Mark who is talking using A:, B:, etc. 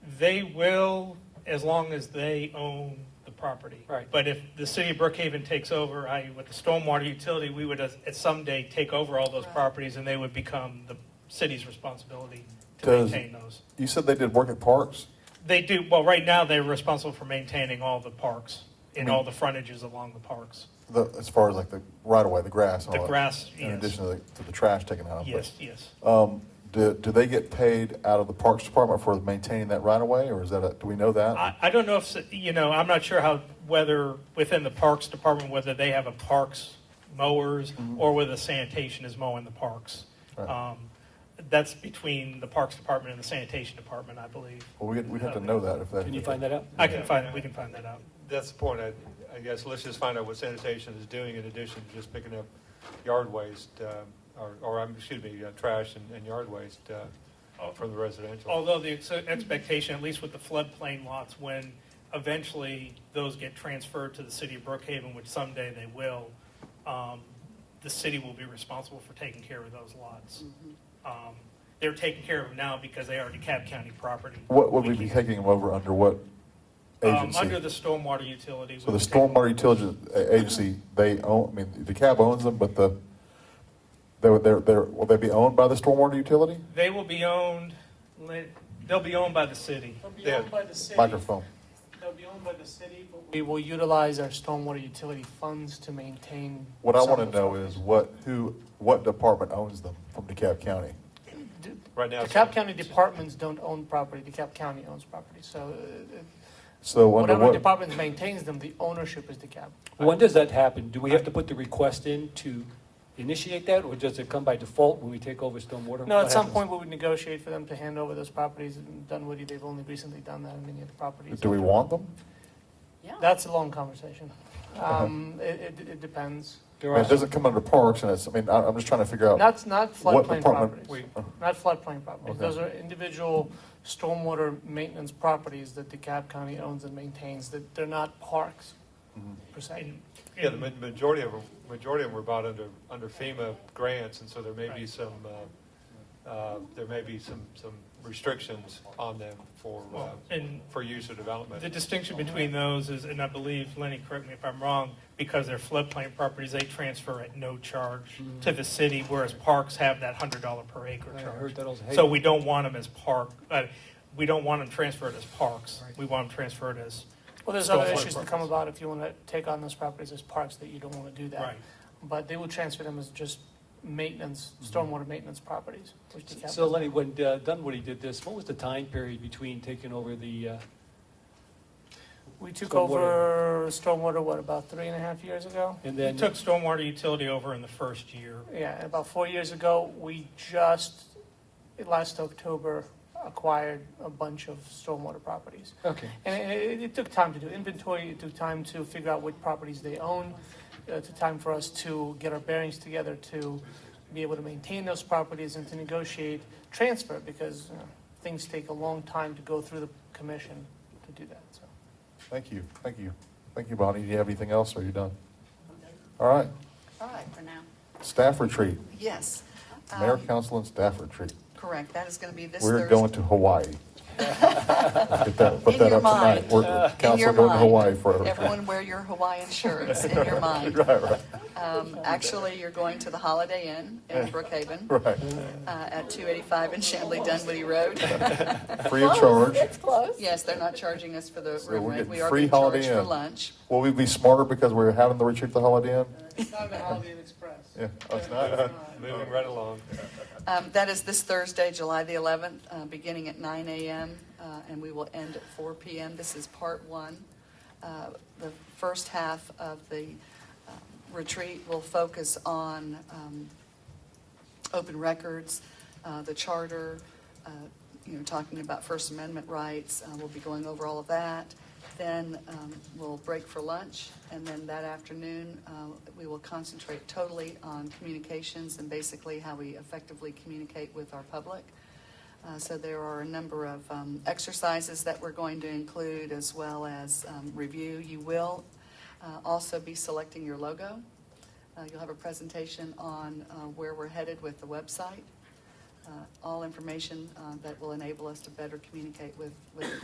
A: They will, as long as they own the property.
B: Right.
A: But if the city of Brookhaven takes over, I, with the stormwater utility, we would at at some day take over all those properties and they would become the city's responsibility to
C: Does-
A: maintain those.
C: You said they did work at parks?
A: They do, well, right now, they're responsible for maintaining all the parks and all the frontages along the parks.
C: The, as far as like the right away, the grass, and
A: The
C: all that,
A: grass,
C: in
A: yes.
C: addition to the, to the trash taken out. of it.
A: Yes, yes.
C: Um, do, do they get paid out of the Parks Department for maintaining that right away, or is that a, do we know that?
A: I, I don't know if, s- you know, I'm not sure how, whether within the Parks Department, whether they have a parks mowers or whether sanitation is mowing the parks.
C: Mm-hmm. Right.
A: Um, That's between the Parks Department and the Sanitation Department, I believe.
C: well, we'd, we'd have to know that if that.
B: Can you find that out?
A: I can find, we can find that out.
D: That's the point, I, I guess, let's just find out what sanitation is doing in addition to just picking up yard waste, uh, or, or, um, excuse me, uh, trash and, and yard waste,
A: Oh.
D: uh, from the residential.
A: Although the ex- expectation, at least with the floodplain lots, when eventually those get transferred to the city of Brookhaven, which someday they will, um, the city will be responsible for taking care of those lots. Um, They're taking care of them now because they are DeKalb County property.
C: What would we be taking them over under what
A: Um,
C: agency?
A: Under the stormwater utility.
C: so the
A: we would take-
C: Stormwater Utility A- Agency, they own. I mean, the cab owns them, but the they would they're, they're will they be owned by the Stormwater Utility?
A: They will be owned, let- they'll be owned by the city.
E: They'll be
D: Yeah.
E: owned by the city.
C: Microphone.
E: They'll be owned by the city, but we
B: We will utilize our stormwater utility funds to maintain.
C: What I
B: some
C: want
B: of
C: to
B: the
C: know is what who what department owns them from DeKalb County?
D: Right now. it's-
B: DeKalb County departments don't own property, DeKalb County owns property, so uh, uh,
C: So under
B: whatever
C: what?
B: department maintains them, the ownership is DeKalb.
F: When does that happen? Do we have to put the request in to initiate that, or does it come by default when we take over stormwater?
B: No,
F: What
B: at some
F: happens?
B: point, we would negotiate for them to hand over those properties, and Dunwoody, they've only recently done that in many of the properties.
C: do we want them?
B: That's a long conversation. Um, It, it- it depends.
F: There
C: I
F: are
C: mean, it
F: some-
C: doesn't come under parks, and it's. I mean, I, I'm just trying to figure out.
B: Not, not
C: Oh. What
B: floodplain
C: department-
B: properties,
D: We,
B: not floodplain properties.
C: Okay.
B: Those are individual stormwater maintenance properties that DeKalb County owns and maintains, that they're not parks,
C: Mm-hmm.
B: per se.
A: And-
D: yeah, the ma- majority of, them- majority of them were bought under, under FEMA grants, and so there may be
A: Right.
D: some, uh, uh, there may be some, some restrictions on them for,
A: Well,
D: uh,
A: And
D: for use or development.
A: The distinction between those is, and I believe, Lenny, correct me if I'm wrong, because they're floodplain properties, they transfer at no charge to the city, whereas parks have that hundred dollar per acre
F: I
A: charge.
F: heard that also.
A: So we don't want them as park, uh, we don't want them transferred as parks. We want them transferred as,
B: Well, there's other
A: Stormwater
B: issues that
A: properties.
B: come about if you want to take on those properties as parks, that you don't want to do that.
A: right.
B: But they will transfer them as just maintenance,
C: Mm-hmm.
B: stormwater maintenance properties, which DeKalb.
F: So Lenny, when uh, Dunwoody did this, what was the time period between taking over the, uh,
B: We took
F: Stormwater.
B: over stormwater, what, about three and a half years ago?
F: and
A: We
F: then?
A: took stormwater utility over in the first year.
B: Yeah, and about four years ago, we just, last October, acquired a bunch of stormwater properties.
F: Okay,
B: And it, it- it took time to do inventory, it took time to figure out what properties they own, uh, it took time for us to get our bearings together to be able to maintain those properties and to negotiate transfer, because you know, things take a long time to go through the commission to do that, so.
C: Thank you, thank you, thank you, Bonnie. Do you have anything else, or are you done? All right,
G: All right, for now.
C: staff retreat,
G: Yes.
C: mayor,
G: Um,
C: council, and staff retreat.
G: Correct, that is going to be this Thursday.
C: We're going to Hawaii. Get that, put
G: In
C: that
G: your
C: up tonight.
G: mind.
C: We're,
G: In
C: council
G: your
C: going to
G: mind.
C: Hawaii for a retreat.
G: Everyone wear your Hawaiian shirts in your mind.
C: Right, right,
G: Um, Actually, you're going to the Holiday Inn in Brookhaven uh,
C: right.
G: at 285 in Shanley Dunwoody Road.
C: Free of charge.
G: Yes, they're not charging us for the
C: So
G: room
C: we're
G: rate.
C: getting
G: We are
C: free
G: being
C: Holiday
G: charged for
C: Inn.
G: lunch.
C: Will we be smarter because we're having the retreat at the Holiday Inn?
E: It's not the Holiday Inn Express.
C: Yeah, oh, it's not.
D: Moving right along.
G: Um, That is this Thursday, July the 11th, uh, beginning at 9 a.m., uh, and we will end at 4 p.m. This is part one. Uh, The first half of the um, retreat will focus on um, open records, uh, the charter, uh, you know, talking about First Amendment rights. Uh, We'll be going over all of that. Then um, we'll break for lunch, and then that afternoon, uh, we will concentrate totally on communications and basically how we effectively communicate with our public. Uh, So there are a number of um, exercises that we're going to include, as well as um, review. You will uh, also be selecting your logo. Uh, You'll have a presentation on uh, where we're headed with the website, Uh, all information uh, that will enable us to better communicate with with the